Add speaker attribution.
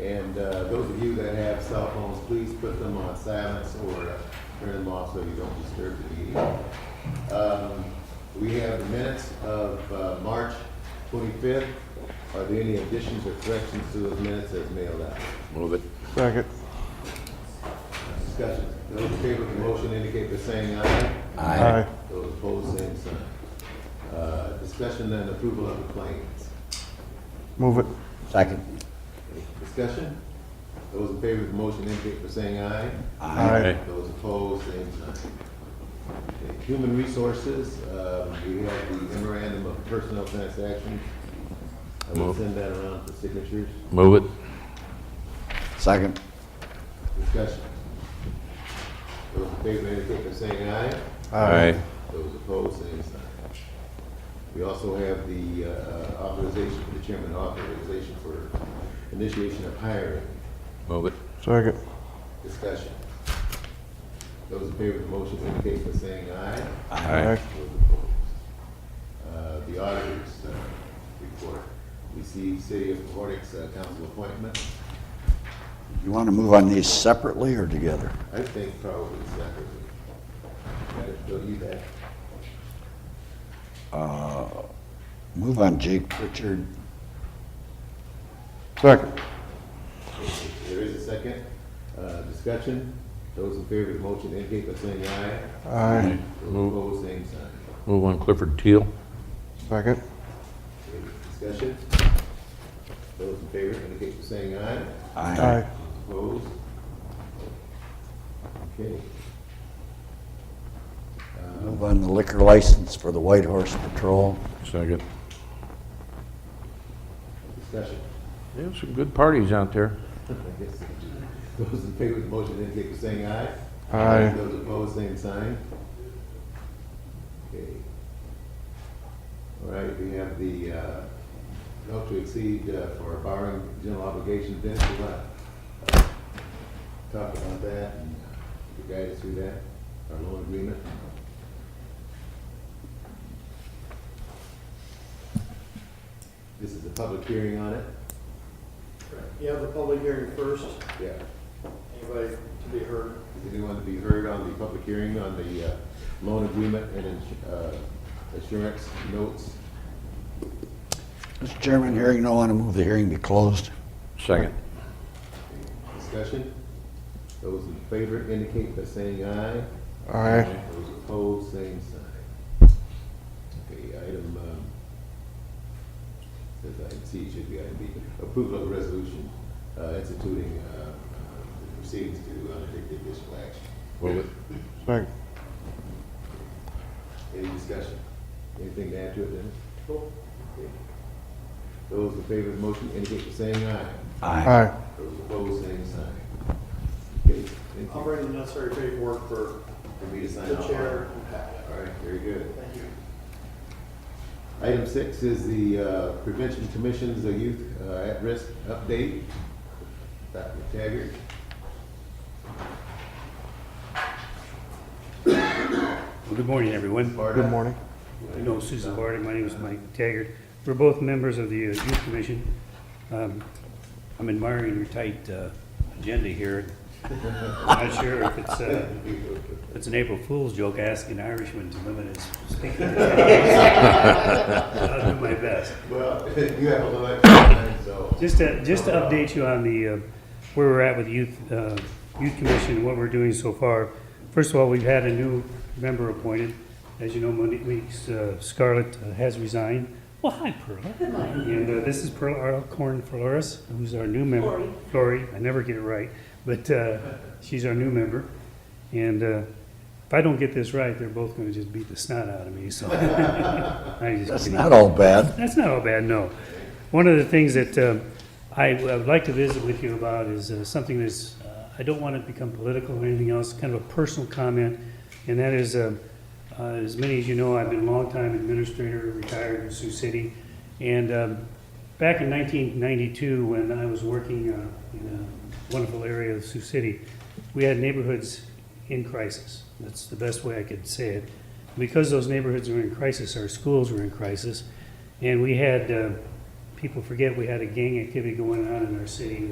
Speaker 1: And uh, those of you that have cell phones, please put them on silence or uh, turn them off so you don't disturb the meeting. Um, We have the minutes of uh, March 25th. Are there any additions or corrections to those minutes as mailed out?
Speaker 2: Move it.
Speaker 3: Second.
Speaker 1: Discussion. Those in favor of the motion indicate by saying aye.
Speaker 3: Aye.
Speaker 1: Those opposed, same sign. Uh, Discussion and approval of the claims.
Speaker 3: Move it.
Speaker 2: Second.
Speaker 1: Discussion? Those in favor of the motion indicate by saying aye.
Speaker 3: Aye.
Speaker 1: Those opposed, same sign. Okay, Human resources, um, we have the memorandum of personnel transactions. I will
Speaker 2: Move.
Speaker 1: send that around for signatures.
Speaker 2: Move it. Second.
Speaker 1: Discussion? Those in favor indicate by saying aye.
Speaker 2: Aye.
Speaker 1: Those opposed, same sign. We also have the uh, authorization for the chairman, authorization for initiation of hiring.
Speaker 2: Move it.
Speaker 3: Second.
Speaker 1: Discussion. Those in favor of the motion indicate by saying aye.
Speaker 3: Aye.
Speaker 1: Those opposed. Uh, The auditors uh, report. We see City of Horlicks uh, council appointment.
Speaker 4: You want to move on these separately or together?
Speaker 1: I think probably separately. Go you back.
Speaker 4: Move on Jake Pritchard.
Speaker 3: Second.
Speaker 1: There is a second. Uh, Discussion. Those in favor of the motion indicate by saying aye.
Speaker 3: Aye.
Speaker 1: Those opposed, same sign.
Speaker 2: Move on Clifford Teal.
Speaker 3: Second.
Speaker 1: Any Discussion? Those in favor indicate by saying aye.
Speaker 3: Aye.
Speaker 1: Opposed? Okay.
Speaker 4: Move on the liquor license for the White Horse Patrol.
Speaker 2: Second.
Speaker 1: Discussion.
Speaker 2: There's some good parties out there.
Speaker 1: I guess we do. Those in favor of the motion indicate by saying aye.
Speaker 3: Aye.
Speaker 1: Those opposed, same sign. Okay. All right, we have the, uh, not to exceed uh, for borrowing general obligation, Vince, you want to talk about that and you guide us through that, our loan agreement? This is a public hearing on it?
Speaker 5: You have a public hearing first,
Speaker 1: Yeah.
Speaker 5: anybody to be heard?
Speaker 1: Does anyone to be heard on the public hearing on the uh, loan agreement and ins- uh, assurance notes?
Speaker 4: Mr. Chairman, hearing no one, I move the hearing be closed.
Speaker 2: Second.
Speaker 1: Discussion? Those in favor indicate by saying aye.
Speaker 3: Aye.
Speaker 1: Those opposed, same sign. Okay, item, um, says item C, should be item B. Approval of resolution uh, instituting uh, uh, the proceedings to undertake the additional action.
Speaker 2: Move it.
Speaker 3: Second.
Speaker 1: Any discussion? Anything to add to it, Dennis?
Speaker 5: Nope.
Speaker 1: Okay. Those in favor of the motion indicate by saying aye.
Speaker 3: Aye.
Speaker 1: Those opposed, same sign. Okay, thank
Speaker 5: I'll
Speaker 1: you.
Speaker 5: bring the necessary paperwork for
Speaker 1: For me to sign
Speaker 5: the
Speaker 1: off on it.
Speaker 5: chair and Pat.
Speaker 1: All right, very good.
Speaker 5: Thank you.
Speaker 1: Item six is the uh, Prevention Commission's uh, Youth uh, At-Risk Update. Dr. Taggart.
Speaker 6: Well, Good morning, everyone.
Speaker 1: Barda.
Speaker 3: Good morning.
Speaker 6: I know Susan Barty, my name is Mike Taggart. We're both members of the uh, Youth Commission. Um, I'm admiring your tight uh, agenda here. I'm not sure if it's, uh, if it's an April Fool's joke asking Irishmen to limit his speaking. I'll do my best.
Speaker 1: Well, you have a little extra time, so.
Speaker 6: Just to, just to update you on the, uh, where we're at with youth, uh, youth commission and what we're doing so far. First of all, we've had a new member appointed. As you know, Monique Weeks, uh, Scarlett uh, has resigned. Well, hi Perla. And uh, this is Perla Alcorn Flores, who's our new member. Lori. I never get it right, but uh, she's our new member. And uh, if I don't get this right, they're both gonna just beat the snot out of me, so. I'm just
Speaker 4: That's
Speaker 6: kidding.
Speaker 4: not all bad.
Speaker 6: That's not all bad, no. One of the things that um, I I would like to visit with you about is uh, something that's, uh, I don't want it to become political or anything else, kind of a personal comment, and that is, um, uh, as many as you know, I've been a longtime administrator, retired in Sioux City, and um, back in 1992, when I was working uh, in a wonderful area of Sioux City, we had neighborhoods in crisis. That's the best way I could say it. Because those neighborhoods were in crisis, our schools were in crisis, and we had, uh, people forget, we had a gang activity going on in our city